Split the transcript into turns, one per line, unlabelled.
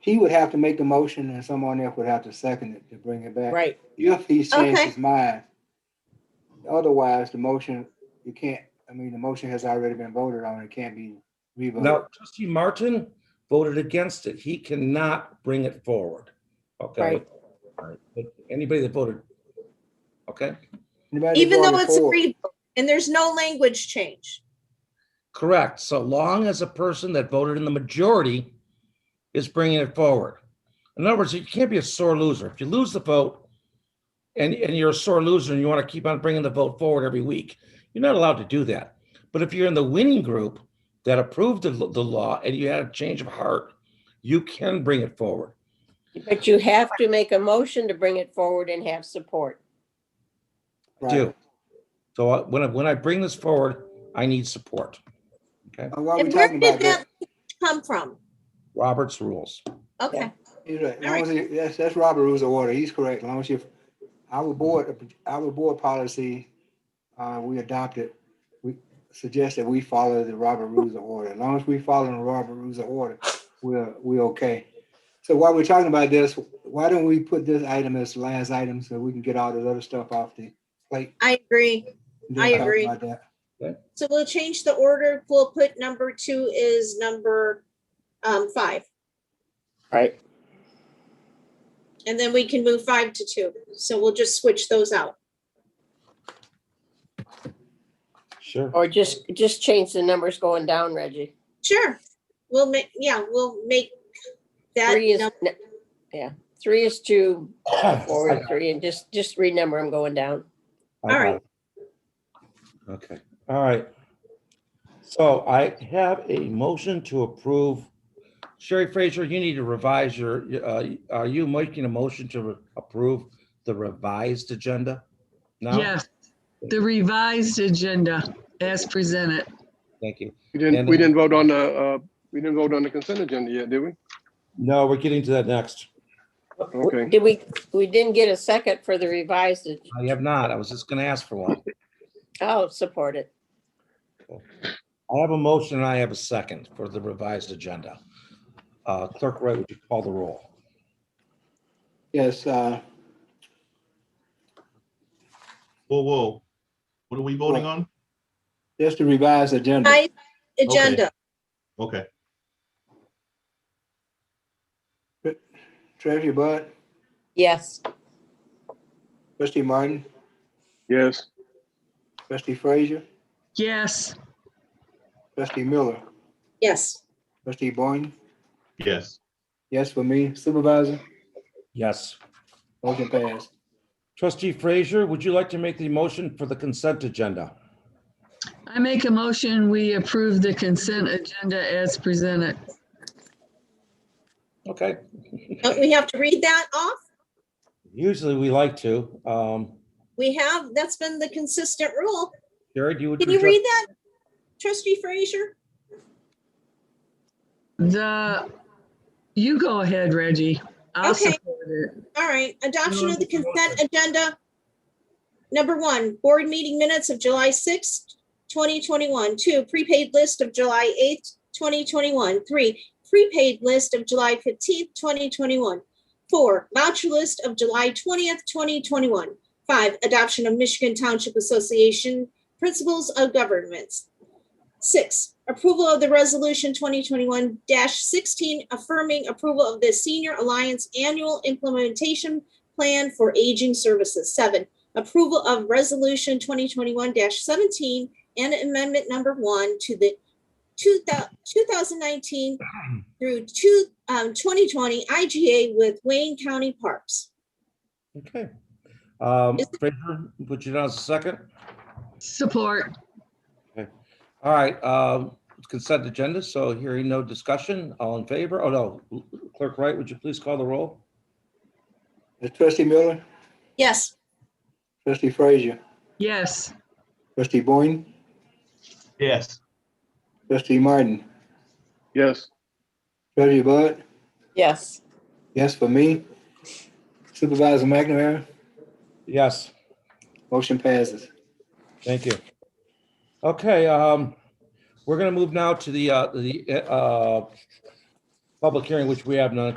he would have to make the motion and someone else would have to second it to bring it back.
Right,
If he's changed
Okay.
his mind. Otherwise, the motion, you can't, I mean, the motion has already been voted on. It can't be revoted.
Now, trustee Martin voted against it. He cannot bring it forward. Okay?
Right.
But Anybody that voted, okay?
Anybody
even though
voted
it's a
for it,
revote and there's no language change.
Correct. So long as a person that voted in the majority is bringing it forward. In other words, you can't be a sore loser. If you lose the vote and, and you're a sore loser and you want to keep on bringing the vote forward every week, you're not allowed to do that. But if you're in the winning group that approved the, the law and you had a change of heart, you can bring it forward.
But you have to make a motion to bring it forward and have support.
right.
do. So I- when I, when I bring this forward, I need support.
Uh, While we're
And where
talking
did
about
that
that,
language come from?
Robert's rules.
Okay,
he's right. As
All
long as he- That's, that's Robert Rules of Order. He's correct. As long as you, our board, our board policy, uh, we adopted, we suggest that we follow the Robert Rules of Order. As long as we follow the Robert Rules of Order, we're, we're okay. So while we're talking about this, why don't we put this item as the last item so we can get all this other stuff off the plate?
I agree.
and then
I
talk
agree.
about that?
So we'll change the order. We'll put number two is number um, five.
Right.
And then we can move five to two. So we'll just switch those out.
Sure.
Or just, just change the numbers going down, Reggie.
Sure. We'll make, yeah, we'll make that.
Three is,
num-
n- yeah, three is two, four is three, and just, just renumber them going down.
All right.
Okay, all right. So I have a motion to approve. Sherry Fraser, you need to revise your, uh, are you making a motion to approve the revised agenda? No?
Yes, the revised agenda as presented.
Thank you.
We
And-
didn't, we didn't vote on the, uh, we didn't vote on the consent agenda yet, did we?
No, we're getting to that next.
Okay.
Did we, we didn't get a second for the revised, ag-
I have not. I was just gonna ask for one.
oh, support it.
I have a motion and I have a second for the revised agenda. Uh, Clerk Wright, would you call the roll?
Yes, uh,
Whoa, whoa. What are we voting on?
just to revise agenda.
Five agenda.
Okay,
Treasurer Bud,
Yes,
trustee Martin,
Yes,
trustee Frazier,
Yes,
trustee Miller,
Yes.
trustee Boyne.
yes.
Yes, for me, Supervisor,
Yes.
motion passed.
Trustee Frazier, would you like to make the motion for the consent agenda?
I make a motion, we approve the consent agenda as presented.
Okay,
Don't we have to read that off?
usually we like to. Um,
We have, that's been the consistent rule.
Sherry, do you? would
Can you
reject-
read that? Trustee Frazier?
The, you go ahead, Reggie. I'll
Okay.
support it.
All right, adoption of the consent agenda. Number one, board meeting minutes of July sixth, twenty twenty-one. Two, prepaid list of July eighth, twenty twenty-one. Three, prepaid list of July fifteenth, twenty twenty-one. Four, voucher list of July twentieth, twenty twenty-one. Five, adoption of Michigan Township Association Principles of Governments. Six, approval of the resolution twenty twenty-one sixteen affirming approval of the Senior Alliance Annual Implementation Plan for Aging Services. Seven, approval of resolution twenty twenty-one seventeen and amendment number one to the two thousand nineteen through two, um, twenty twenty IGA with Wayne County Parks.
Okay. Um,
Is-
Fraser, put you down as a second.
Support,
All right, um, consent agenda, so hearing no discussion, all in favor? Oh, no. Clerk Wright, would you please call the roll?
That's trustee Miller,
Yes.
trustee Frazier,
yes.
trustee Boyne,
Yes.
trustee Martin,
yes.
treasurer Bud,
yes.
yes, for me. Supervisor McNamara,
Yes,
motion passes.
thank you. Okay, um, we're gonna move now to the, uh, the, uh, public hearing, which we have none